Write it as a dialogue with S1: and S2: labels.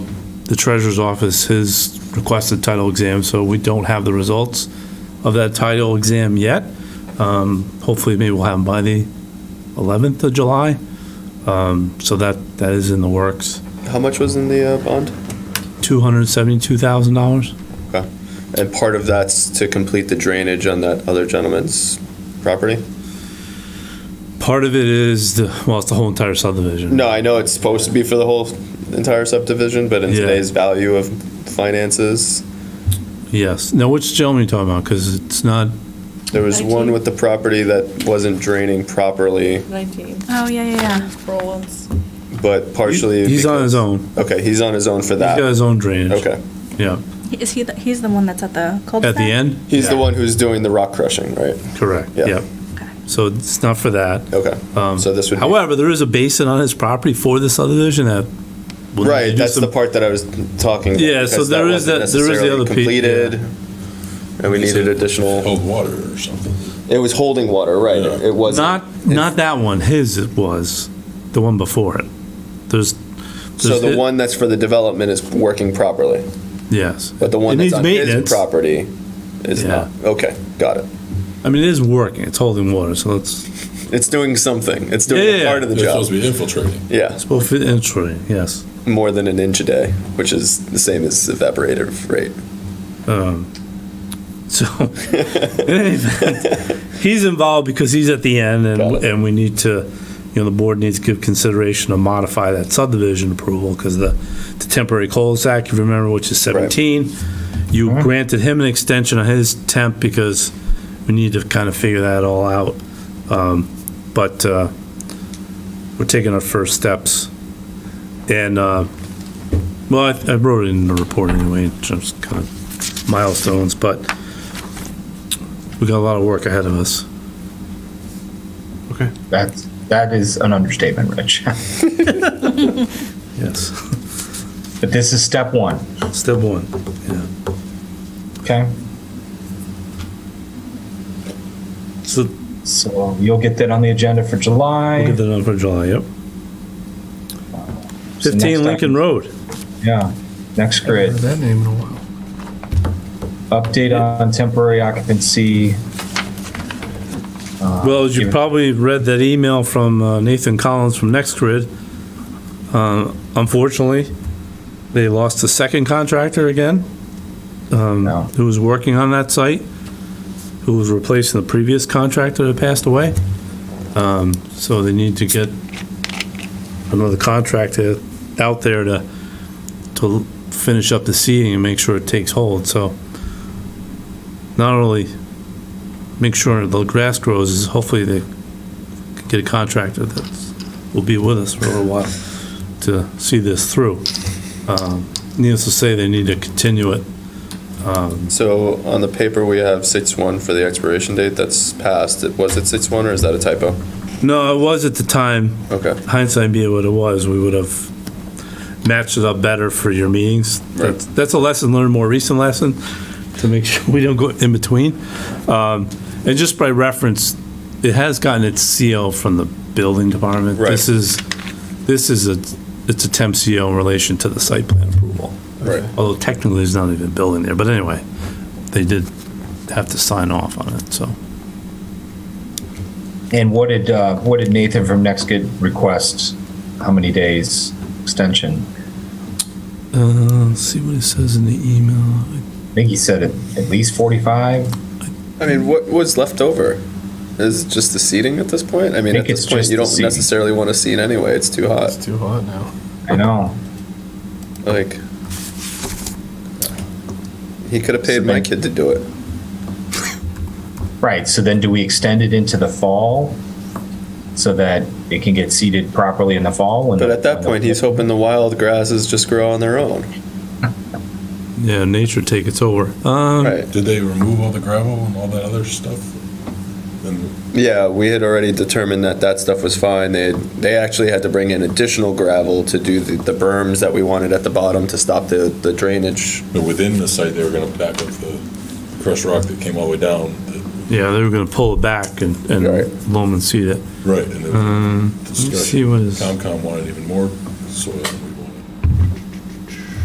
S1: the treasurer's office has requested title exam, so we don't have the results of that title exam yet. Um, Hopefully, maybe we'll have them by the 11th of July. Um, So that, that is in the works.
S2: How much was in the uh, bond?
S1: $272,000?
S2: And part of that's to complete the drainage on that other gentleman's property?
S1: Part of it is, the well, it's the whole entire subdivision.
S2: No, I know it's supposed to be for the whole entire subdivision, but in
S1: Yeah.
S2: today's value of finances,
S1: Yes. Now, which gentleman are you talking about? Because it's not,
S2: there was one
S3: Nineteen.
S2: with the property that wasn't draining properly,
S3: 19,
S4: Oh, yeah, yeah, yeah.
S3: Rollins.
S2: but partially.
S1: he's on his
S2: because-
S1: own.
S2: Okay, he's on his own for
S1: He's got
S2: that.
S1: his own drainage.
S2: Okay.
S1: Yeah,
S4: Is he, the- he's the one that's at the cul-de-sac?
S1: at the end?
S2: He's the
S1: Yeah.
S2: one who's doing the rock crushing, right?
S1: Correct,
S2: Yeah.
S1: yeah.
S4: Okay.
S1: So it's not for that.
S2: Okay.
S1: Um,
S2: So this would be-
S1: However, there is a basin on his property for the subdivision that. will need to
S2: Right,
S1: do
S2: that's the
S1: some-
S2: part that I was talking about.
S1: Yeah, so
S2: because
S1: there is that-
S2: wasn't
S1: there is the
S2: necessarily
S1: other piece, yeah. Oh.
S2: Completed, and we needed additional,
S5: cold water or something.
S2: it was holding water, right,
S5: Yeah.
S2: it wasn't.
S1: Not, not that one, his it was, the one before it. There's.
S2: So
S1: there's
S2: the
S1: it-
S2: one that's for the development is working properly,
S1: Yes.
S2: but the one
S1: It
S2: that's
S1: needs
S2: on his
S1: maintenance.
S2: property is
S1: Yeah.
S2: not. Okay, got it.
S1: I mean, it is working, it's holding water, so let's,
S2: It's doing something. It's doing
S1: Yeah, yeah,
S2: a part of the
S5: They're
S2: job.
S5: supposed to be infiltrating.
S2: yeah,
S1: it's both entry, yes.
S2: more than an inch a day, which is the same as evaporative rate.
S1: Um, So, in any event, he's involved because he's at the end,
S2: Got
S1: and,
S2: it.
S1: and we need to, you know, the board needs to give consideration to modify that subdivision approval, because the, the temporary cul-de-sac, if you remember, which is 17, you granted him an extension on his temp, because we need to kind of figure that all out. Um, But uh, we're taking our first steps, and, uh, well, I- I wrote it in the report anyway, just kind of milestones, but we got a lot of work ahead of us.
S6: That's that is an understatement, Rich.
S1: Yes.
S6: but this is step one.
S1: Step one. Yeah.
S6: Okay.
S1: So
S6: So you'll get that on the agenda for July.
S1: we'll get that done for July, yep.
S6: So next
S1: 15 Lincoln
S6: time-
S1: Road.
S6: Yeah. Next grid.
S7: That name in a while.
S6: Update on temporary occupancy.
S1: Well, as you
S6: yeah.
S1: probably read that email from uh, Nathan Collins from NextGrid. Uh, Unfortunately, they lost the second contractor again,
S2: Um,
S6: No.
S1: who was working on that site, who was replacing the previous contractor that passed away. Um, So they need to get another contractor out there to, to finish up the seeding and make sure it takes hold, so not only make sure the grass grows, is hopefully they can get a contractor that will be with us for a little while to see this through. Um, Needless to say, they need to continue it. Um,
S2: So on the paper we have six one for the expiration date. That's passed. Was it six one or is that a typo?
S1: No, it was at the time,
S2: Okay.
S1: hindsight being what it was, we would have matched it up better for your meetings. That's, that's a lesson learned, more recent lesson, to make sure we don't go in between. Um, And just by reference, it has gotten its CO from the building department.
S2: Right.
S1: This is, this is a, it's a temp CO in relation to the site plan approval.
S2: Right.
S1: Although technically, there's not even a building there, but anyway, they did have to sign off on it, so.
S6: And what did uh, what did Nathan from Next Grid request? How many days extension?
S1: Uh, let's see what it says in the email.
S6: I think he said at, at least forty-five.
S2: I mean, what was left over? Is it just the seating at this point? I mean,
S6: I
S2: at
S6: think
S2: this
S6: it's
S2: point,
S6: just
S2: you
S6: the
S2: don't
S6: seating.
S2: necessarily want to seat anyway. It's too hot.
S7: It's too hot now.
S6: I know.
S2: Like, he could have paid my kid to do it.
S6: Right. So then, do we extend it into the fall so that it can get seeded properly in the fall? When
S2: But
S6: the-
S2: at that
S6: when
S2: point,
S6: the,
S2: he's hoping the wild grasses just grow on their own.
S1: Yeah, nature take its over. Um,
S2: Right.
S5: Did they remove all the gravel and all that other stuff? And
S2: Yeah, we had already determined that that stuff was fine. They, they actually had to bring in additional gravel to do the, the berms that we wanted at the bottom to stop the, the drainage.
S5: but within the site, they were going to back up the crushed rock that came all the way down. the-
S1: Yeah, they were gonna pull it back and,
S2: Right.
S1: and loam and seed it.
S7: Mm-hmm.
S5: Right. And there was
S1: Um, let's see
S5: discussion.
S1: what is,
S5: Comcom wanted even more soil. We